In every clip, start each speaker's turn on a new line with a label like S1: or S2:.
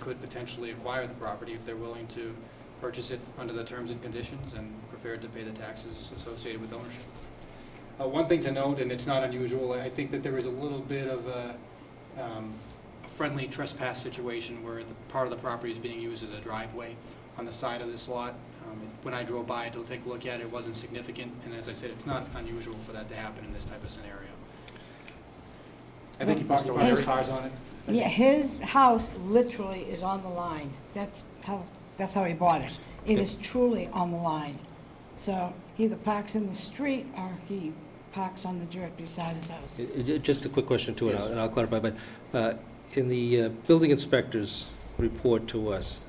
S1: could potentially acquire the property if they're willing to purchase it under the terms and conditions and prepared to pay the taxes associated with ownership. Uh, One thing to note, and it's not unusual, I think that there is a little bit of a um, a friendly trespass situation where the part of the property is being used as a driveway on the side of this lot. Um, it- When I drove by to take a look at it, it wasn't significant, and as I said, it's not unusual for that to happen in this type of scenario. I think he parked a bunch of cars on it.
S2: Yeah, his house literally is on the line. That's how, that's how he bought it. It is truly on the line. So he either parks in the street or he parks on the dirt beside his house.
S3: Uh, uh, Just a quick question too, and I'll-
S4: Yes.
S3: and I'll clarify, but uh, in the uh, building inspector's report to us,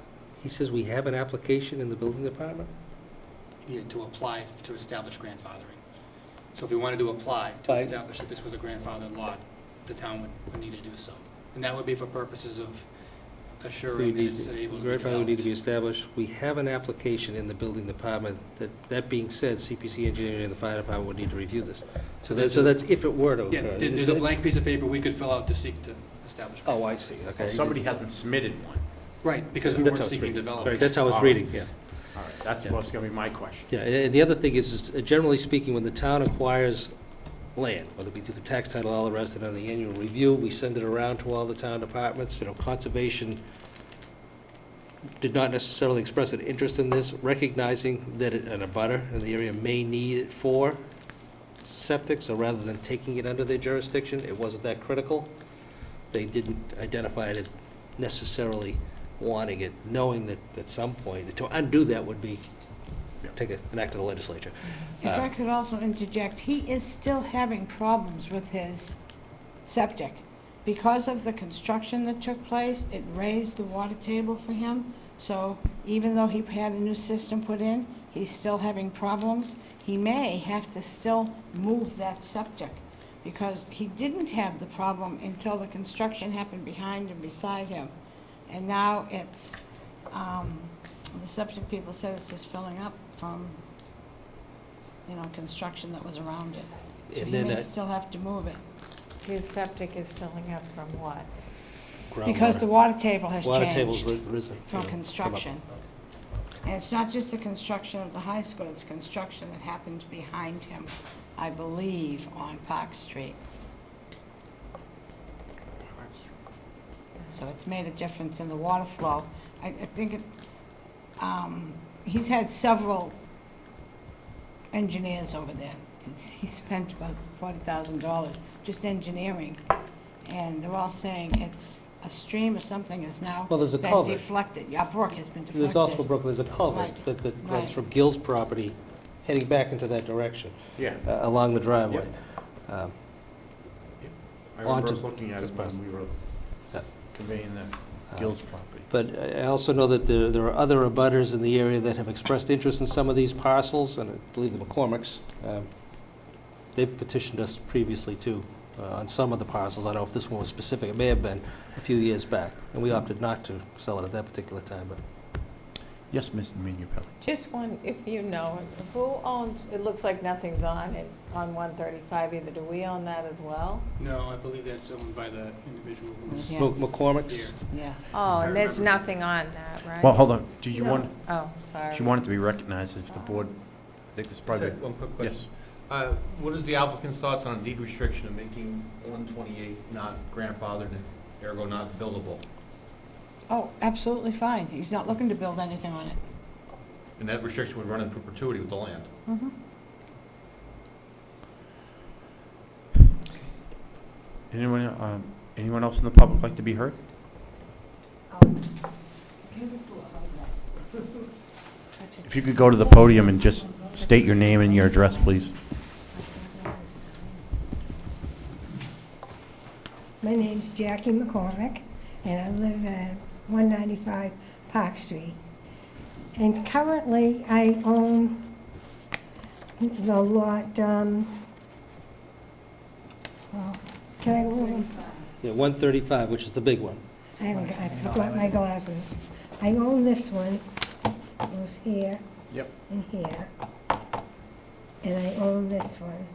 S3: he says we have an application in the building department?
S1: Yeah, to apply to establish grandfathering. So if we wanted to apply to
S3: By-
S1: establish that this was a grandfathered lot, the town would, would need to do so. And that would be for purposes of
S3: We
S1: assuring that
S3: need-
S1: it's able to be
S3: Grandfather would need to be
S1: developed.
S3: established. We have an application in the building department. That that being said, CPC engineering and the fire department would need to review this. So that- so that's if it were to
S1: Yeah,
S3: occur.
S1: there- there's a blank piece of paper we could fill out to seek to establish.
S3: Oh, I see, okay.
S4: Well, somebody hasn't submitted one.
S1: Right, because we
S3: That's
S1: weren't
S3: how it's
S1: seeking
S3: written.
S1: development.
S3: Right, that's how it's
S4: All
S3: reading, yeah.
S4: All right, that's
S3: Yeah.
S4: what's gonna be my question.
S3: Yeah, and the other thing is, is uh, generally speaking, when the town acquires land, whether it be through the tax title, all the rest, and on the annual review, we send it around to all the town departments, you know, conservation did not necessarily express an interest in this, recognizing that it- an abutter in the area may need it for septic, so rather than taking it under their jurisdiction, it wasn't that critical. They didn't identify it as necessarily wanting it, knowing that at some point, to undo that would be take a- an act of the legislature.
S2: If I could also interject, he is still having problems with his septic. Because of the construction that took place, it raised the water table for him. So even though he had a new system put in, he's still having problems. He may have to still move that septic because he didn't have the problem until the construction happened behind and beside him. And now it's, um, the septic people said it's just filling up from you know, construction that was around it. So
S3: And
S2: you
S3: then
S2: may
S3: that
S2: still have to move it,
S5: His septic is filling up from what?
S2: because the
S3: groundwater,
S2: water table has
S3: water table's
S2: changed
S3: ri- risen. you know,
S2: from
S3: came up.
S2: construction. And it's not just the construction of the high school, it's construction that happened behind him, I believe, on Park Street. So it's made a difference in the water flow. I, I think it, um, he's had several engineers over there. He's- He spent about forty thousand dollars just engineering, and they're all saying it's a stream or something is now
S3: Well, there's a
S2: been
S3: culvert.
S2: deflected. Yeah, brook has been deflected.
S3: There's also, Brooklyn, there's a culvert
S2: Right,
S3: that, that
S2: right.
S3: runs from Gill's property, heading back into that direction,
S4: Yeah.
S3: uh, along the driveway. Um,
S4: I remember
S3: Onto
S4: us looking at
S3: this
S4: it
S3: person.
S4: when we were
S3: Yeah.
S4: conveying the Gill's property.
S3: But I I also know that there, there are other abutters in the area that have expressed interest in some of these parcels, and I believe the McCormicks. um, They've petitioned us previously too, uh, on some of the parcels. I don't know if this one was specific, it may have been a few years back, and we opted not to sell it at that particular time, but
S4: Yes, Mr. Minipelli.
S5: Just one, if you know, who owns, it looks like nothing's on it, on 135 either. Do we own that as well?
S1: No, I believe that's owned by the individual who's
S2: Yeah.
S1: here.
S3: Mc- McCormick's,
S2: Yes.
S5: Oh,
S1: I
S5: and there's
S1: remember.
S5: nothing on that, right?
S4: Well, hold on, do you
S5: No.
S4: want,
S5: Oh, sorry.
S4: she wanted to be recognized if the board, I think this
S6: Just
S4: probably,
S6: had One quick
S4: yes.
S6: question. Uh, What is the applicant's thoughts on a deed restriction of making 128 not grandfathered and ergo not buildable?
S2: Oh, absolutely fine. He's not looking to build anything on it.
S6: And that restriction would run in perpetuity with the land.
S4: Anyone, um, anyone else in the public like to be heard? If you could go to the podium and just state your name and your address, please.
S7: My name's Jackie McCormick, and I live at 195 Park Street. And currently, I own the lot, um, well, can I go over?
S3: yeah, 135, which is the big one.
S7: I haven't, got- I forgot my glasses. I own this one, it was here.
S4: Yep.
S7: And here. And I own this one.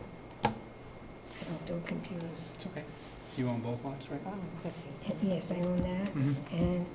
S7: I don't do computers.
S1: It's okay. You own both lots, right?
S5: Oh, it's okay.
S7: Yes, I own that, and